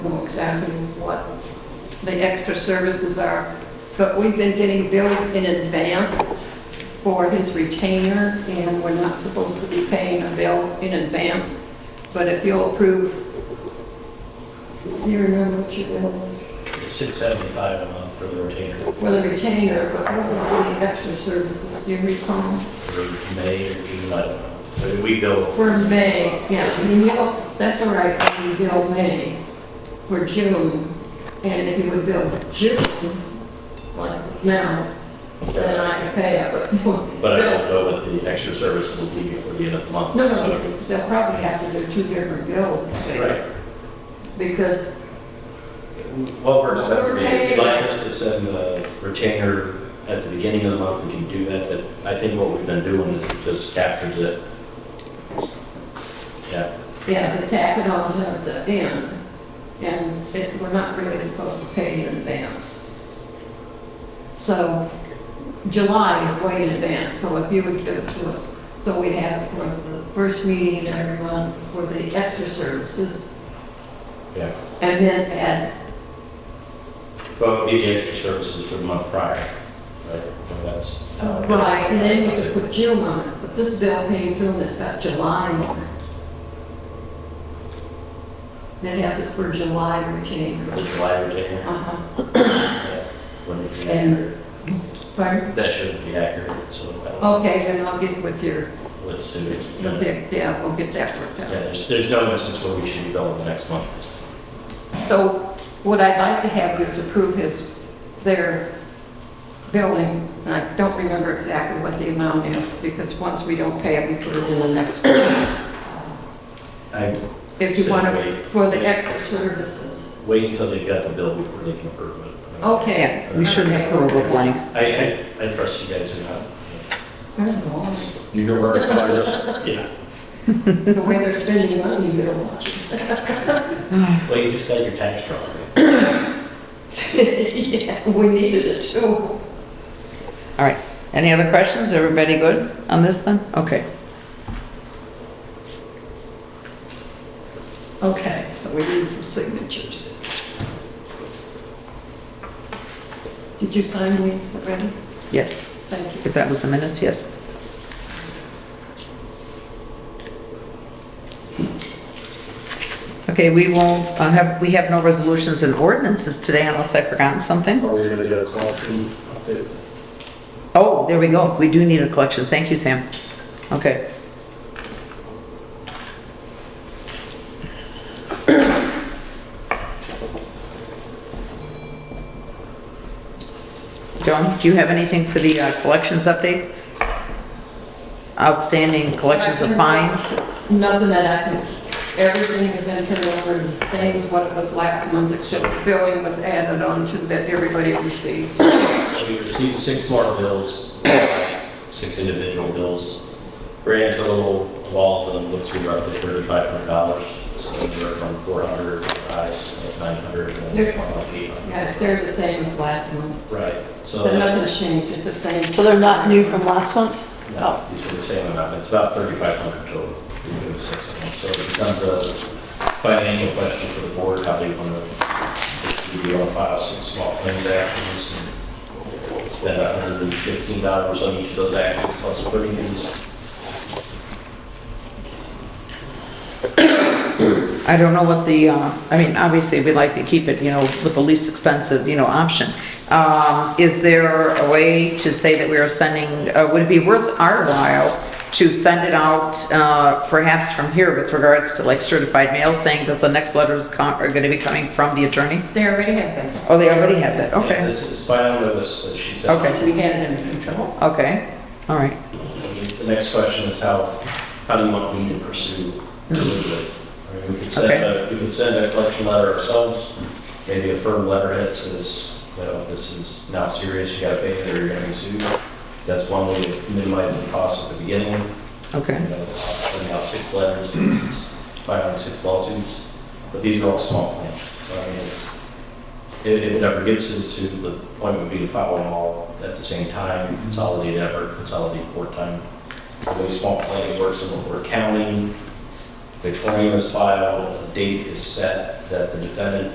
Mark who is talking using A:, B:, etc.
A: exactly what the extra services are, but we've been getting billed in advance for his retainer, and we're not supposed to be paying a bill in advance. But if you'll approve, do you remember what your bill was?
B: It's six seventy-five a month for the retainer,
A: For the retainer, but what was the extra services, do you recall?
B: for May or June, I don't know. But we bill,
A: For May, yeah, I mean, you'll- that's all right, you bill May for June, and if you would bill June, like now, then I can pay it, but.
B: but I don't know what the extra services will be before the end of the month.
A: No,
B: so-
A: no, it's- they'll probably have to do two different bills,
B: Right.
A: because,
B: What works better for
A: We're
B: you, if you'd
A: paying-
B: like us to send the retainer at the beginning of the month, we can do that, but I think what we've been doing is it just captures it. Yeah,
A: yeah, the tack it on to the end, and it, we're not really supposed to pay in advance. So July is way in advance, so if you would give it to us, so we have for the first meeting in every month for the extra services,
B: yeah.
A: and then add,
B: But we the extra services for the month prior, right? So That's. how it-
A: right, and then you could put June on it, but this bill came through and it's got July on it. That has it for July retained.
B: The July retainer,
A: Uh-huh.
B: yeah, when it's
A: And-
B: accurate.
A: Pardon?
B: That shouldn't be accurate, so uh, I don't-
A: Okay, then I'll get with your,
B: let's see.
A: with the- yeah, we'll get that worked
B: Yeah,
A: out.
B: there's, there's no instance where we should be billing the next month.
A: So what I'd like to have you is approve his, their billing, and I don't remember exactly what the amount is, because once we don't pay it, we put it in the next.
B: I
A: If you want to,
B: Wait.
A: for the extra services.
B: wait until they've got the bill before they can approve it.
A: Okay.
C: We shouldn't approve a blank.
B: I, I, I trust you guys enough.
A: I don't know.
D: You know where to find us?
B: Yeah,
A: The way they're spending money, you don't want it.
B: well, you just got your tax drawn.
A: Yeah, we needed it too.
C: All right. Any other questions? Everybody good on this then? Okay.
A: Okay, so we need some signatures. Did you sign these already?
C: Yes.
A: Thank you.
C: If that was the minutes, yes. Okay, we won't uh, have, we have no resolutions and ordinances today unless I've forgotten something.
D: Are we gonna get a collection update?
C: Oh, there we go. We do need a collections. Thank you, Sam. Okay. Joan, do you have anything for the uh, collections update? Outstanding collections of fines?
A: Nothing that I can, everything has been turned over is the same as what it was last month, except the billing was added on to that everybody received.
B: So we received six more bills, six individual bills. Grand total of all of them looks to be roughly thirty-five hundred dollars. So anywhere from four hundred, highs, nine hundred, and
A: They're-
B: 1,800.
A: Yeah, they're the same as last month,
B: Right, so.
A: but nothing's changed, it's the same.
E: So they're not new from last month?
B: No, these are the same amount, it's about thirty-five hundred total, we do the six of them. So it becomes a financial question for the board, how they want to, do you want to file six small claims actions? and Spend a hundred and fifteen dollars on each of those actions plus attorneys.
C: I don't know what the, uh, I mean, obviously, we'd like to keep it, you know, with the least expensive, you know, option. Um, Is there a way to say that we are sending, uh, would it be worth our while to send it out uh, perhaps from here with regards to like certified mail, saying that the next letters co- are going to be coming from the attorney?
A: They already have them.
C: Oh, they already have that,
B: And
C: okay,
B: This is final notice that she sent.
C: Okay.
A: We had it under control.
C: okay, all right.
B: The next question is how, how do you want me to pursue? the movement? I mean, We could send a, we could send a collection letter ourselves, maybe a firm letterhead that says, you know, this is now serious, you gotta pay it or you're gonna be sued. That's one way to minimize the cost at the beginning, you
C: Okay,
B: know, sending out uh, six letters, filing six lawsuits. But these are all small claims, so I mean, it's, if, if it ever gets to the suit, the point would be to file them all at the same time, consolidate effort, consolidate court time. The way small claims works in we're counting, the claim is filed, a date is set that the defendant